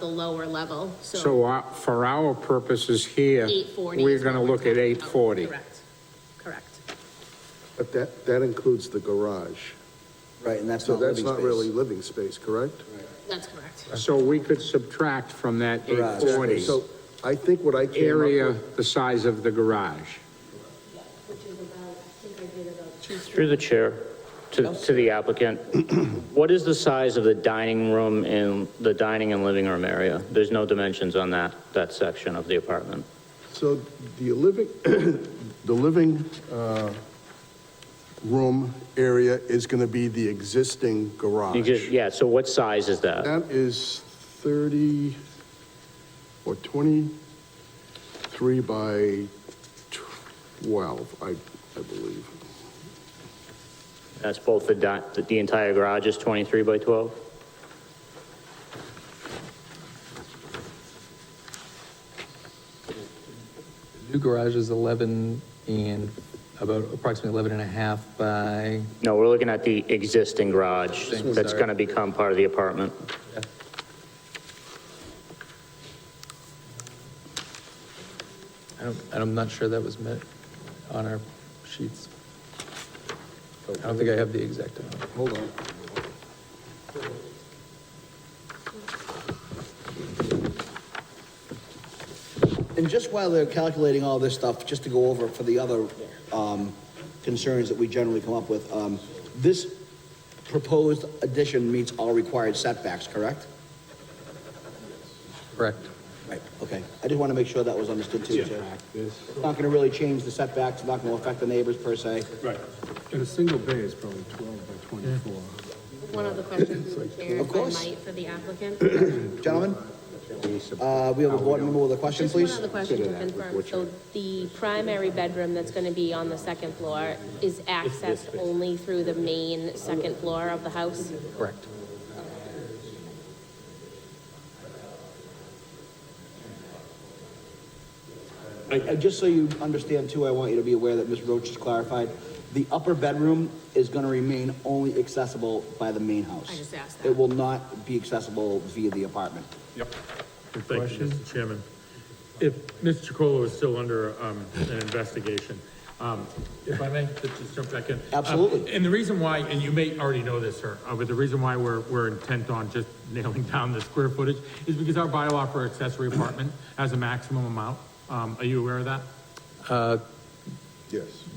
the lower level, so So uh, for our purposes here, 840. we're is what going to look at talking about. 840. Correct, correct. But that, that includes the garage. Right, and that's So not Oh, living that's space. not really living space, correct? That's correct. So we could subtract from that Garage. 840, So I think what I came area up with, the size of the garage. Which is about, I think I did about two. Through the chair, to, to the applicant, what is the size of the dining room in, the dining and living room area? There's no dimensions on that, that section of the apartment. so the living, the living, uh, room area is gonna be the existing You just, garage. yeah, so what size is that? That is thirty or twenty-three by twelve, I, I believe. That's both the di, the- the entire garage is 23 by 12? New garage is 11 and about approximately 11 and a half by, No, we're looking at the existing garage Existing, that's sorry. going to become part of the apartment. I don't, I'm not sure that was met on our sheets. I don't think I have the exact amount. Hold on. And just while they're calculating all this stuff, just to go over for the other, um, concerns that we generally come up with, um, this proposed addition meets all required setbacks, correct? Correct. Right. Okay, I just want to make sure that was understood too, Chair. It's Not going to really change the setbacks, not going to affect the neighbors per se. Right. And a single bay is probably 12 by 24. One other question, through the chair, if Of I course. might, for the applicant. Gentlemen, uh, we have a board member with a question, Just one please? other question to confirm. So the primary bedroom that's going to be on the second floor is accessed only through the main second floor of the house? Correct. Uh, Just so you understand too, I want you to be aware that Ms. Roach has clarified, the upper bedroom is gonna remain only accessible by the main house. I just asked It that. will not be accessible via the apartment. Thank you, Mr. Chairman. If Mr. Chacolo is still under um, an investigation, um, if I may, just just jump back in. Absolutely. Uh, And the reason why, and you may already know this, sir, uh, but the reason why we're, we're intent on just nailing down the square footage is because our bylaw for accessory apartment has a maximum amount. Um, Are you aware of that? Yes.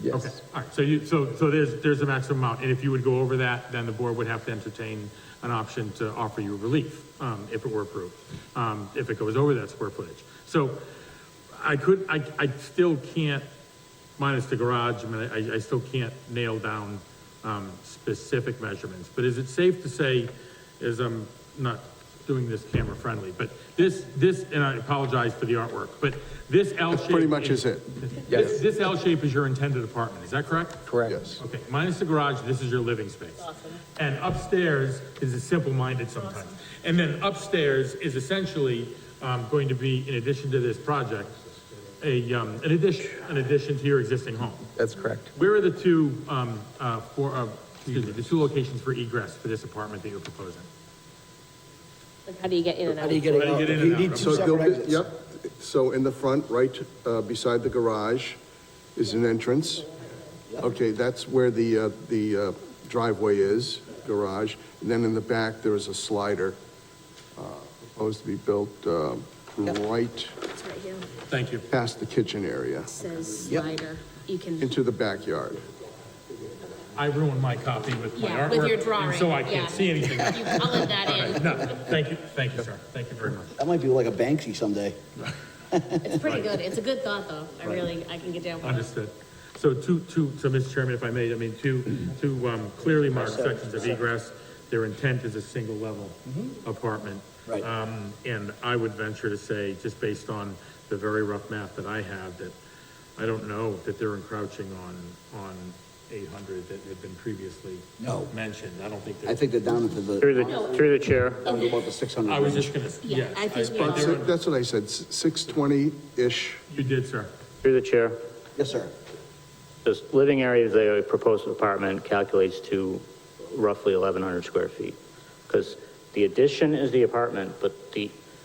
Okay, Yes. all right, so you, so, so there's, there's a maximum amount, and if you would go over that, then the board would have to entertain an option to offer you relief, um, if it were approved, um, if it goes over that square footage. So I could, I, I still can't, minus the garage, I mean, I, I still can't nail down, um, specific measurements, but is it safe to say, is I'm not doing this camera friendly, but this, this, and I apologize for the artwork, but this L shape. Pretty much is it, Yes. This, this L shape is your intended apartment, is that correct? Correct. yes. Okay, minus the garage, this is your living space. Awesome. And upstairs is a simple-minded sometimes. And then upstairs is essentially, um, going to be, in addition to this project, a, um, an addition, an addition to your existing home. That's correct. Where are the two, um, uh, for, uh, excuse me, the two locations for egress for this apartment that you're proposing? Like, how do you get in and out? How do you get it How do you out? get in You and need out? two So there'll separate be- exits. Yep, so in the front, right, uh, beside the garage is an entrance. Okay, that's where the, uh, the uh, driveway is, garage, and then in the back, there is a slider, uh, proposed to be built, um, right It's right here. It Thank you. past the kitchen area, says Yep. slider. You can, into the backyard. I ruined my copy with my yeah, artwork. with your and drawing. So I yeah. can't see anything. You colored that in. No, thank you, thank you, sir, thank you very much. That might be like a Banksy someday. It's pretty good. It's a good thought, though. I really, I can get down with it. Understood. So two, two, so Mr. Chairman, if I may, I mean, two, two um, clearly marked sections of egress, their intent is a single level apartment. Mm-hmm. Right. Um, and I would venture to say, just based on the very rough math that I have, that I don't know that they're encroaching on, on eight hundred that had been previously No. mentioned. I don't think I they're, think they're down into the, Through the, through the chair, down to about the six hundred. I was just gonna, yes. Yeah, I think we I- are. So That's what I said, six twenty-ish. You did, sir. through the chair. Yes, sir. This living area of the proposed apartment calculates to roughly 1,100 square feet. Because the addition is the apartment, but the